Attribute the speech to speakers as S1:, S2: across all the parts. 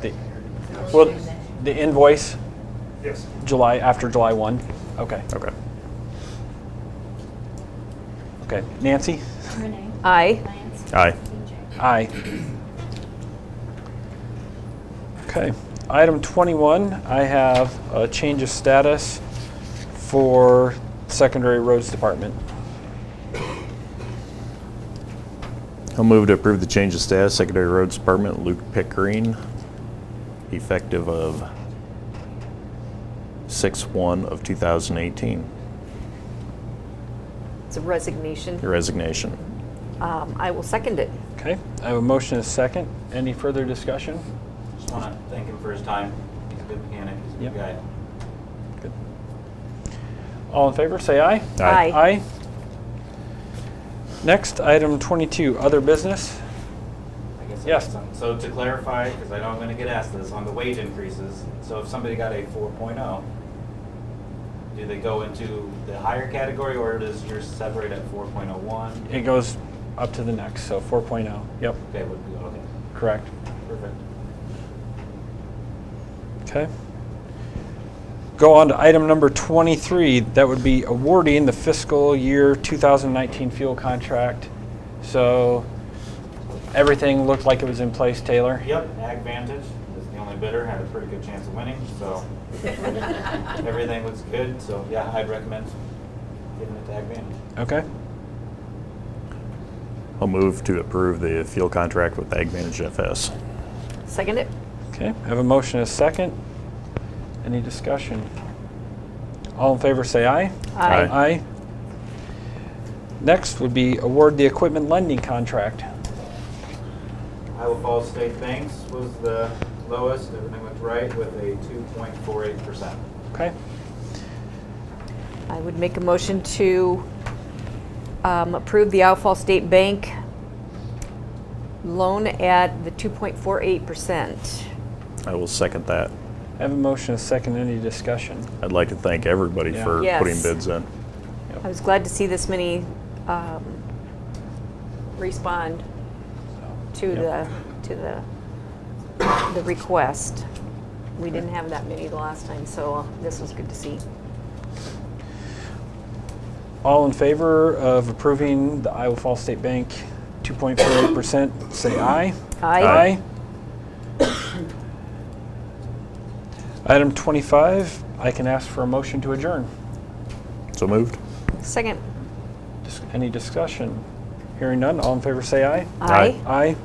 S1: The, well, the invoice
S2: Yes.
S1: July after July one. Okay.
S3: Okay.
S1: Okay. Nancy.
S4: Renee.
S5: Aye.
S4: Lance.
S3: Aye.
S4: BJ.
S1: Aye. Okay, item 21, I have a change of status for Secondary Roads Department.
S3: I'll move to approve the change of status, Secondary Roads Department, Luke Pickering, effective of 6/1 of 2018,
S5: It's a resignation.
S3: Your resignation.
S5: Um, I will second it.
S1: Okay, I have a motion and a second. Any further discussion?
S6: Just want to thank him for his time. He's a good mechanic, he's a
S1: Yep.
S6: good guy.
S1: Good. All in favor, say aye.
S5: Aye.
S1: Aye. Next, item 22, other business.
S6: I guess I
S1: Yes.
S6: got some- So to clarify, because I know I'm going to get asked this, on the wage increases, so if somebody got a 4.0, do they go into the higher category or does yours separate at 4.01?
S1: It goes up to the next, so 4.0. Yep,
S6: Okay, would be, okay,
S1: correct.
S6: perfect.
S1: Okay. Go on to item number 23, that would be awarding the fiscal year 2019 fuel contract. So everything looked like it was in place, Taylor?
S6: Yep, Ag Vantage is the only bidder, had a pretty good chance of winning, so everything looks good. So yeah, I'd recommend giving it to Ag Vantage.
S1: Okay,
S3: I'll move to approve the fuel contract with Ag Manage FS.
S5: Second it?
S1: okay. I Have a motion and a second. Any discussion? All in favor, say aye.
S3: Aye.
S1: Aye. Next would be award the equipment lending contract.
S6: Iowa Falls State Banks was the lowest, everything looked right, with a 2.48%.
S1: Okay,
S5: I would make a motion to um, approve the Outfall State Bank loan at the 2.48%.
S3: I will second that.
S1: I have a motion and a second. Any discussion?
S3: I'd like to thank everybody
S1: Yeah.
S3: for
S5: Yes.
S3: putting bids in.
S5: I was glad to see this many um, respond to the,
S1: Yep.
S5: to the, the request. We didn't have that many the last time, so this was good to see.
S1: All in favor of approving the Iowa Falls State Bank 2.48%, say aye.
S5: Aye.
S1: Item 25, I can ask for a motion to adjourn.
S3: So moved?
S5: Second.
S1: Dis- Any discussion? Hearing none, all in favor say aye.
S3: Aye.
S1: Aye.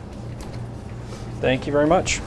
S1: Thank you very much.